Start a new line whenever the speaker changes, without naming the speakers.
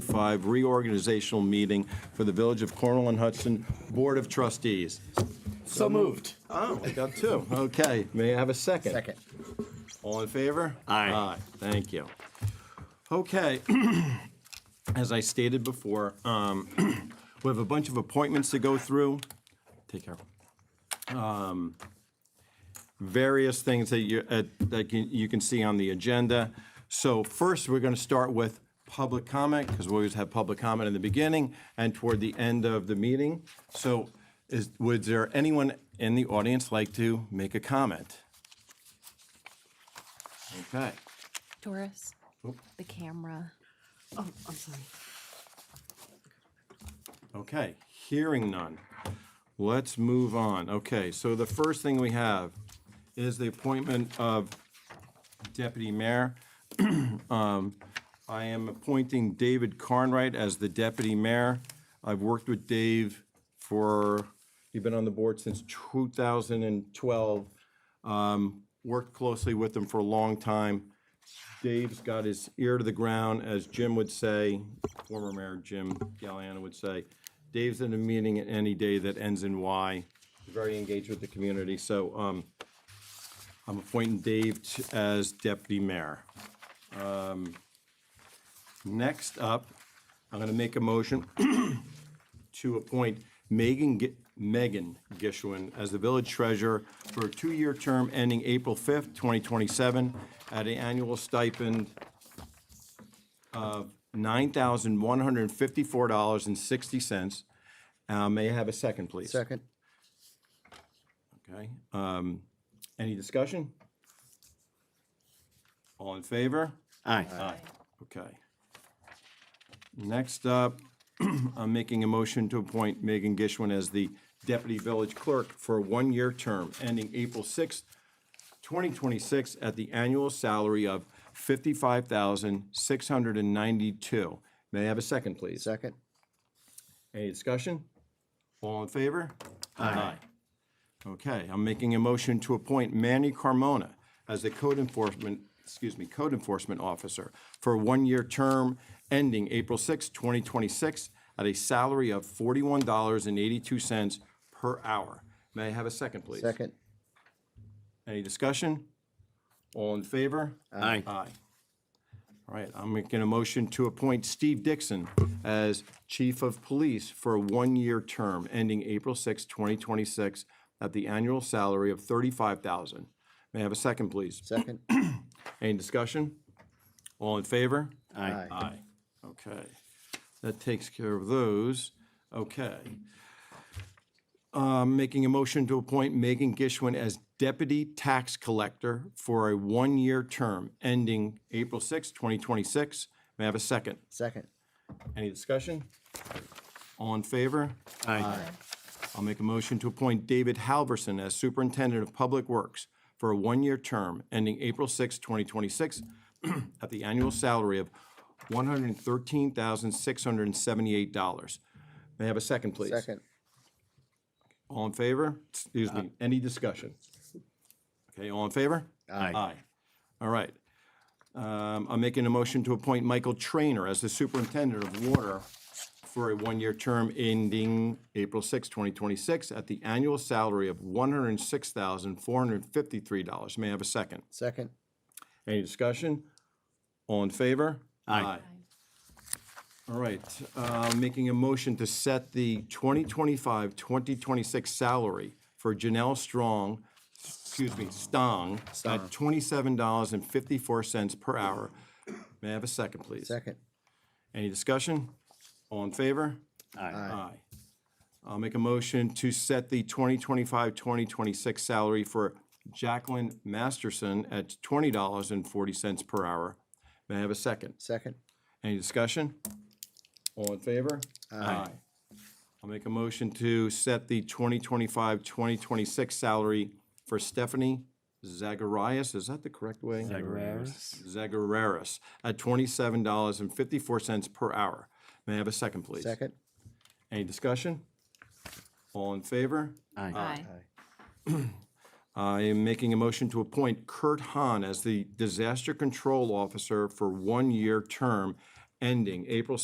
25 reorganizational meeting for the Village of Cornwall and Hudson Board of Trustees.
So moved.
Oh, we got two. Okay, may I have a second?
Second.
All in favor?
Aye.
Aye, thank you. Okay, as I stated before, um, we have a bunch of appointments to go through. Take care. Um, Various things that you, uh, that you- you can see on the agenda. So first, we're going to start with public comment, because we always have public comment in the beginning and toward the end of the meeting. So is, would there anyone in the audience like to make a comment? Okay.
Doris, the camera.
Oh, I'm sorry.
Okay, hearing none. Let's move on. Okay, so the first thing we have is the appointment of deputy mayor. Um, I am appointing David Carnwright as the deputy mayor. I've worked with Dave for, you've been on the board since 2012. Um, Worked closely with him for a long time. Dave's got his ear to the ground, as Jim would say, former mayor Jim Galliano would say. Dave's in a meeting at any day that ends in Y. Very engaged with the community, so um, I'm appointing Dave t- as deputy mayor. Um, Next up, I'm going to make a motion to appoint Megan, Gi- Megan Gishwin as the village treasurer for a two-year term ending April 5th, 2027, at an annual stipend of $9,154.60. Uh, May I have a second, please?
Second.
Okay. um, Any discussion? All in favor?
Aye.
Aye. Okay. Next up, I'm making a motion to appoint Megan Gishwin as the deputy village clerk for a one-year term ending April 6th, 2026, at the annual salary of 55692 May I have a second, please?
Second.
Any discussion? All in favor? Aye. Okay, I'm making a motion to appoint Manny Carmona as the code enforcement, excuse me, code enforcement officer for a one-year term ending April 6, 2026, at a salary of $41.82 per hour. May I have a second, please?
Second.
Any discussion? All in favor?
Aye.
Aye. All right, I'm making a motion to appoint Steve Dixon as Chief of Police for a one-year term ending April 6, 2026, at the annual salary of $35,000. May I have a second, please?
Second.
Any discussion? All in favor?
Aye.
Aye. Okay. That takes care of those. Okay. Um, Making a motion to appoint Megan Gishwin as Deputy Tax Collector for a one-year term ending April 6, 2026. May I have a second?
Second.
Any discussion? All in favor?
Aye.
I'll make a motion to appoint David Halverson as Superintendent of Public Works for a one-year term ending April 6, 2026, at the annual salary of $113,678. May I have a second, please?
Second.
All in favor? Excuse me, any discussion? Okay, all in favor?
Aye.
Aye. All right. Um, I'm making a motion to appoint Michael Trainer as the superintendent of water for a one-year term ending April 6, 2026, at the annual salary of $106,453. May I have a second?
Second.
Any discussion? All in favor?
Aye.
All right, uh, making a motion to set the 2025-2026 salary for Janelle Strong, excuse me, Stong, at $27.54 per hour. May I have a second, please?
Second.
Any discussion? All in favor? Aye. I'll make a motion to set the 2025-2026 salary for Jacqueline Masterson at $20.40 per hour. May I have a second?
Second.
Any discussion? All in favor? Aye. I'll make a motion to set the 2025-2026 salary for Stephanie Zagarias, is that the correct way? Zagarias. Zagarias, at $27.54 per hour. May I have a second, please?
Second.
Any discussion? All in favor?
Aye.
I am making a motion to appoint Kurt Hahn as the Disaster Control Officer for one-year term ending April